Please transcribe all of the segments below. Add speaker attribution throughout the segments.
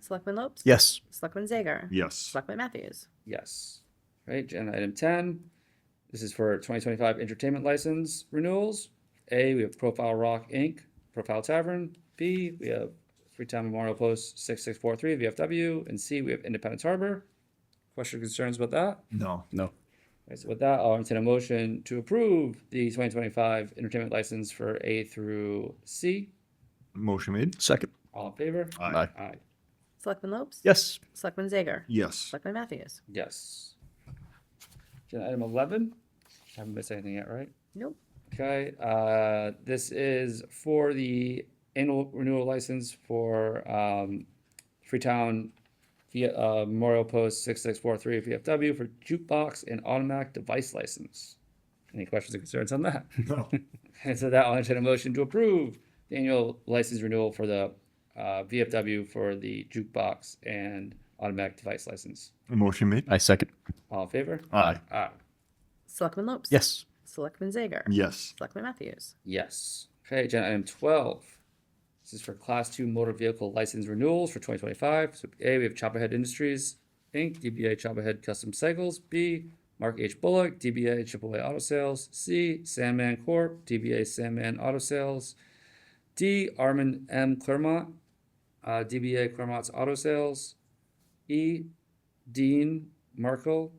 Speaker 1: Selectman Lopes?
Speaker 2: Yes.
Speaker 1: Selectman Zager?
Speaker 3: Yes.
Speaker 1: Selectman Matthews?
Speaker 4: Yes. Right, agenda item ten. This is for twenty twenty-five entertainment license renewals. A, we have Profile Rock Inc., Profile Tavern. B, we have Freetown Memorial Post six six four three VFW. And C, we have Independence Harbor. Question or concerns about that?
Speaker 3: No.
Speaker 2: No.
Speaker 4: Right, so with that, I'll entertain a motion to approve the twenty twenty-five entertainment license for A through C.
Speaker 3: Motion made.
Speaker 2: Second.
Speaker 4: All in favor?
Speaker 2: Aye.
Speaker 4: Aye.
Speaker 1: Selectman Lopes?
Speaker 2: Yes.
Speaker 1: Selectman Zager?
Speaker 3: Yes.
Speaker 1: Selectman Matthews?
Speaker 4: Yes. Agenda item eleven. Haven't missed anything yet, right?
Speaker 1: Nope.
Speaker 4: Okay, uh, this is for the annual renewal license for, um, Freetown via, uh, Memorial Post six six four three VFW for jukebox and automatic device license. Any questions or concerns on that?
Speaker 3: No.
Speaker 4: And so that, I'll entertain a motion to approve the annual license renewal for the, uh, VFW for the jukebox and automatic device license.
Speaker 3: Motion made.
Speaker 2: I second.
Speaker 4: All in favor?
Speaker 3: Aye.
Speaker 4: Aye.
Speaker 1: Selectman Lopes?
Speaker 2: Yes.
Speaker 1: Selectman Zager?
Speaker 3: Yes.
Speaker 1: Selectman Matthews?
Speaker 4: Yes. Okay, agenda item twelve. This is for class two motor vehicle license renewals for twenty twenty-five. So A, we have Chopperhead Industries, Inc., DBA Chopperhead Custom Cycles, B, Mark H. Bullock, DBA AAA Auto Sales, C, Sandman Corp., DBA Sandman Auto Sales, D, Armin M. Clermont, uh, DBA Clermont's Auto Sales, E, Dean Markle,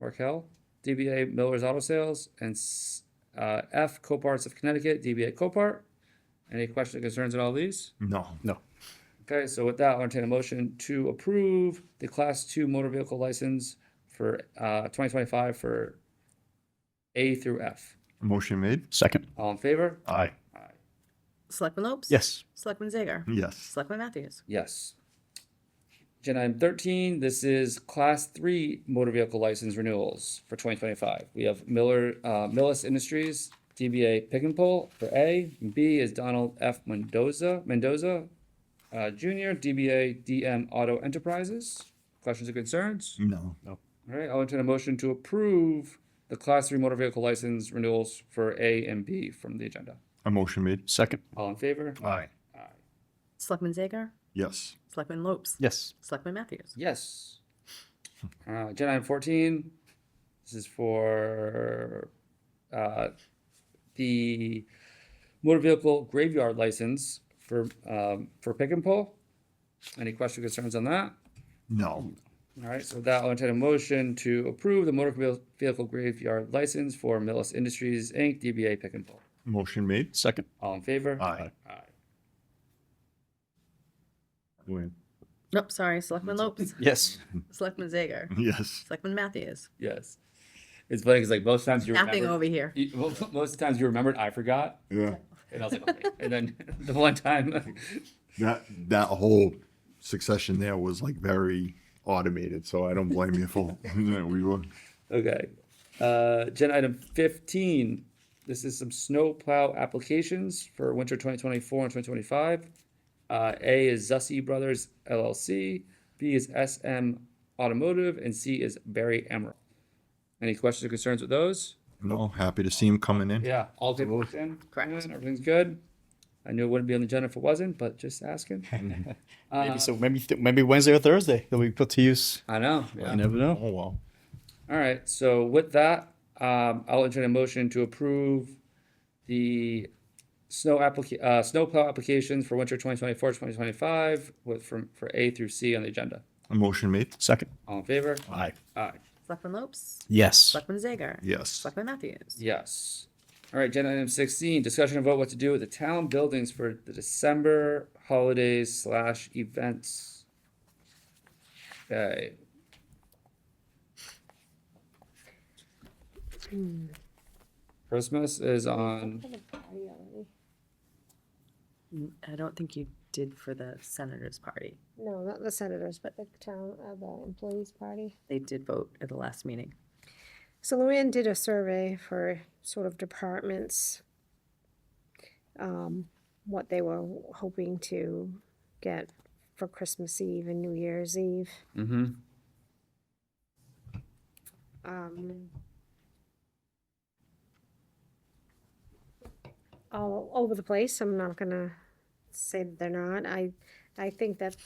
Speaker 4: Markel, DBA Miller's Auto Sales, and S- uh, F Coparts of Connecticut, DBA Copart. Any questions or concerns on all these?
Speaker 3: No.
Speaker 2: No.
Speaker 4: Okay, so with that, I'll entertain a motion to approve the Class Two motor vehicle license for uh, 2025 for A through F.
Speaker 3: Motion made.
Speaker 2: Second.
Speaker 4: All in favor?
Speaker 3: Aye.
Speaker 1: Selectman Lopes?
Speaker 2: Yes.
Speaker 1: Selectman Zager?
Speaker 3: Yes.
Speaker 1: Selectman Matthews?
Speaker 4: Yes. Agenda item thirteen, this is class three motor vehicle license renewals for twenty twenty-five. We have Miller, uh, Millis Industries, DBA Pick and Pull for A. and B is Donald F. Mendoza, Mendoza, uh, Junior, DBA DM Auto Enterprises. Questions or concerns?
Speaker 3: No.
Speaker 4: All right, I'll entertain a motion to approve the class three motor vehicle license renewals for A and B from the agenda.
Speaker 3: A motion made.
Speaker 2: Second.
Speaker 4: All in favor?
Speaker 3: Aye.
Speaker 1: Selectman Zager?
Speaker 3: Yes.
Speaker 1: Selectman Lopes?
Speaker 2: Yes.
Speaker 1: Selectman Matthews?
Speaker 4: Yes. Uh, agenda item fourteen, this is for, uh, the motor vehicle graveyard license for, um, for pick and pull. Any questions or concerns on that?
Speaker 3: No.
Speaker 4: All right, so with that, I'll entertain a motion to approve the motor vehi- vehicle graveyard license for Millis Industries, Inc., DBA Pick and Pull.
Speaker 3: Motion made.
Speaker 2: Second.
Speaker 4: All in favor?
Speaker 3: Aye.
Speaker 4: Aye.
Speaker 3: Wait.
Speaker 1: Nope, sorry. Selectman Lopes?
Speaker 2: Yes. Mm-hmm.
Speaker 1: Selectman Zager?
Speaker 3: Yes.
Speaker 1: Selectman Matthews?
Speaker 4: Yes. It's funny, because like most times you
Speaker 1: Napping
Speaker 4: remember,
Speaker 1: over here.
Speaker 4: you- mo- most times you remembered, I forgot.
Speaker 3: Yeah.
Speaker 4: And I was like, okay. and then the one time,
Speaker 3: That that whole succession there was like very automated, so I don't blame you for that we were.
Speaker 4: okay. Uh, agenda item 15. This is some snow plow applications for winter 2024 and 2025. Uh, A is Zussi Brothers LLC, B is SM Automotive, and C is Barry Emerald. Any questions or concerns with those?
Speaker 3: No, happy to see him coming in.
Speaker 4: Yeah, all paperwork's in.
Speaker 1: Correct.
Speaker 4: good, Everything's good. I knew it wouldn't be on the agenda if it wasn't, but just asking.
Speaker 2: Maybe so. Maybe th- maybe Wednesday or Thursday they'll be put to use.
Speaker 4: I know.
Speaker 2: You
Speaker 4: yeah.
Speaker 2: never know.
Speaker 3: Oh wow.
Speaker 4: All right, so with that, um, I'll entertain a motion to approve the snow applica- uh, snowplow applications for winter 2024, 2025 with from, for A through C on the agenda.
Speaker 3: A motion made.
Speaker 2: Second.
Speaker 4: All in favor?
Speaker 2: Aye.
Speaker 4: Aye.
Speaker 1: Selectman Lopes?
Speaker 2: Yes.
Speaker 1: Selectman Zager?
Speaker 3: Yes.
Speaker 1: Selectman Matthews?
Speaker 4: Yes. All right, agenda item sixteen, discussion about what to do with the town buildings for the December holidays slash events. Okay, Christmas is on,
Speaker 1: I don't think you did for the senator's party.
Speaker 5: No, not the senators, but the town, uh, the employees' party.
Speaker 1: They did vote at the last meeting.
Speaker 5: So Luann did a survey for sort of departments, um, what they were hoping to get for Christmas Eve and New Year's Eve.
Speaker 4: mm-hmm.
Speaker 5: um, all over the place. I'm not gonna say that they're not. I, I think that